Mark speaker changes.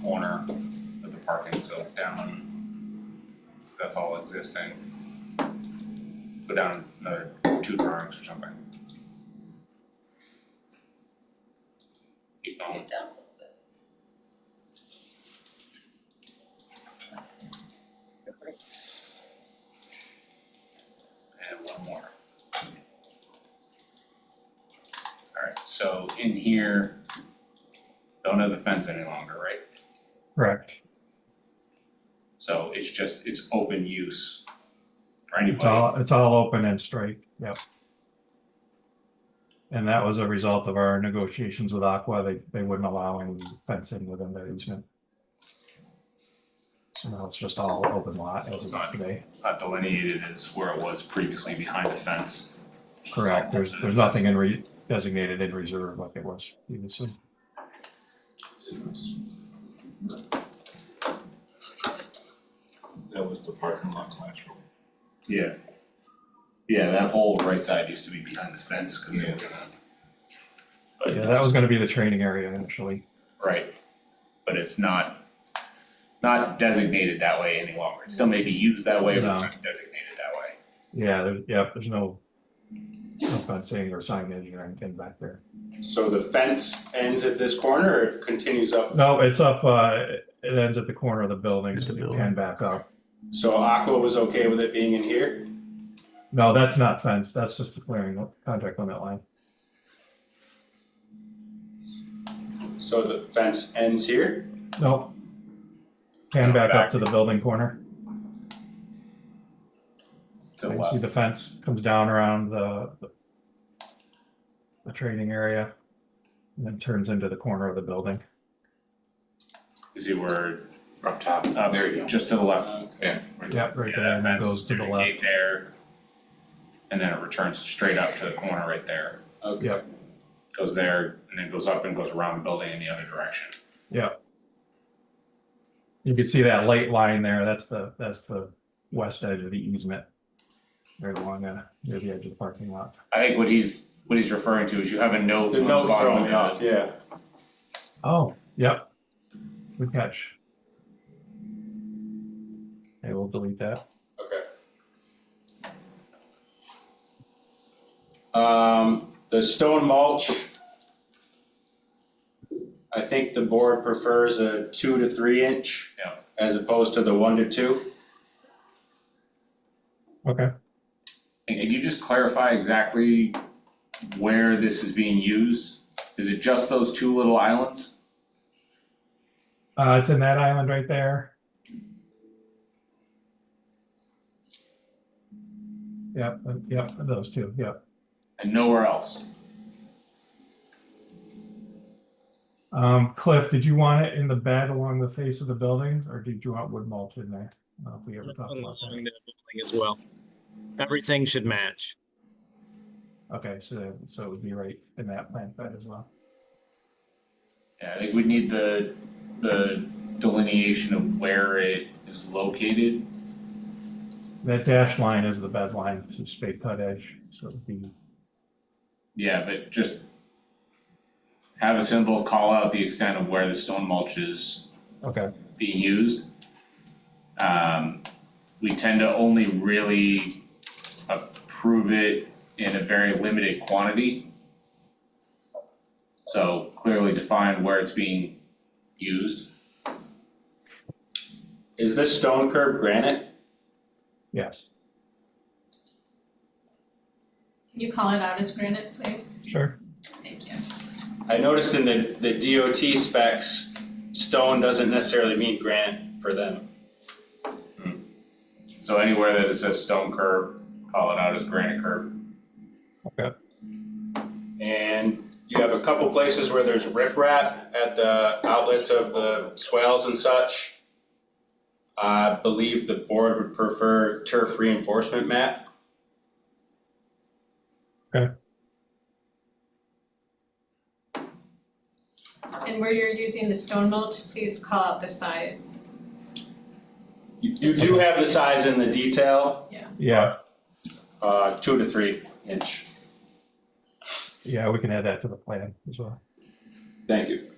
Speaker 1: corner that the parking took down. That's all existing. Put down another two drawings or something. Keep
Speaker 2: Get
Speaker 1: going.
Speaker 2: it down a little bit.
Speaker 1: And one more. Alright, so in here, don't have the fence any longer, right?
Speaker 3: Correct.
Speaker 1: So it's just, it's open use for
Speaker 3: It's
Speaker 1: anybody.
Speaker 3: all, it's all open and straight, yep. And that was a result of our negotiations with Aqua, they, they wouldn't allow any fencing within their easement. So now it's just all open lot
Speaker 1: So it's
Speaker 3: as it is
Speaker 1: not-
Speaker 3: today,
Speaker 1: Not delineated as where it was previously behind the fence.
Speaker 3: correct, there's, there's nothing in re, designated in reserve like it was previously.
Speaker 4: That was the parking lot classroom.
Speaker 1: Yeah. Yeah, that whole right side used to be behind the fence, cause they were gonna. But
Speaker 3: Yeah,
Speaker 1: it's-
Speaker 3: that was gonna be the training area initially,
Speaker 1: Right, but it's not, not designated that way any longer, it still may be used that way, but it's
Speaker 3: No.
Speaker 1: not designated that way.
Speaker 3: yeah, there, yep, there's no no fencing or signage or anything back there.
Speaker 5: So the fence ends at this corner or it continues up?
Speaker 3: No, it's up, uh, it ends at the corner of the building,
Speaker 6: At
Speaker 3: so
Speaker 6: the
Speaker 3: you
Speaker 6: building.
Speaker 3: can back up.
Speaker 5: So Aqua was okay with it being in here?
Speaker 3: No, that's not fenced. That's just the clearing contract limit line.
Speaker 5: So the fence ends here?
Speaker 3: Nope. Can back up to the building corner.
Speaker 1: To the
Speaker 3: You can see
Speaker 1: left,
Speaker 3: the fence comes down around the the- the training area and then turns into the corner of the building.
Speaker 1: you see where,
Speaker 4: Up top.
Speaker 1: uh,
Speaker 4: There you go.
Speaker 1: just to the left,
Speaker 3: Yep, right
Speaker 1: yeah,
Speaker 3: there,
Speaker 1: that
Speaker 3: and it
Speaker 1: fence,
Speaker 3: goes to
Speaker 1: there's
Speaker 3: the
Speaker 1: a gate
Speaker 3: left.
Speaker 1: there. And then it returns straight up to the corner right there,
Speaker 5: Okay.
Speaker 3: Yep.
Speaker 1: goes there, and then goes up and goes around the building in the other direction.
Speaker 3: You can see that light line there. That's the, that's the west edge of the easement. Right along the, near the edge of the parking lot.
Speaker 1: I think what he's, what he's referring to is you have a note
Speaker 5: The
Speaker 1: on the
Speaker 5: note's
Speaker 1: bottom
Speaker 5: throwing
Speaker 1: of
Speaker 5: me
Speaker 1: the-
Speaker 5: off, yeah.
Speaker 3: Oh, yep. Good catch. Okay, we'll delete that.
Speaker 5: Okay. Um, the stone mulch. I think the board prefers a two to three inch.
Speaker 1: Yeah.
Speaker 5: As opposed to the one to two.
Speaker 3: Okay.
Speaker 1: And can you just clarify exactly where this is being used? Is it just those two little islands?
Speaker 3: Uh, it's in that island right there. Yep, uh, yep, those two, yep.
Speaker 1: And nowhere else?
Speaker 3: Um, Cliff, did you want it in the bed along the face of the building, or did you want wood mulch in there? I don't know if we ever talked about that.
Speaker 6: along the building as well. Everything should match.
Speaker 3: Okay, so, so it would be right in that plant bed as well.
Speaker 1: Yeah, I think we need the, the delineation of where it is located.
Speaker 3: That dash line is the bed line, it's a straight cut edge, so it would be,
Speaker 1: Yeah, but just have a symbol, call out the extent of where the stone mulch is
Speaker 3: okay,
Speaker 1: being used. Um, we tend to only really approve it in a very limited quantity. So clearly define where it's being used.
Speaker 5: Is this stone curb granite?
Speaker 3: yes,
Speaker 2: Can you call it out as granite, please?
Speaker 3: sure.
Speaker 2: Thank you.
Speaker 5: I noticed in the, the DOT specs, stone doesn't necessarily mean granite for them.
Speaker 1: So anywhere that it says stone curb, call it out as granite curb.
Speaker 5: And you have a couple places where there's riprap at the outlets of the swales and such. I believe the board would prefer turf reinforcement mat.
Speaker 2: And where you're using the stone mulch, please call out the size.
Speaker 5: You, you do have the size in the detail,
Speaker 3: Yeah,
Speaker 5: uh, two to three inch.
Speaker 3: yeah, we can add that to the plan as well.
Speaker 5: Thank you.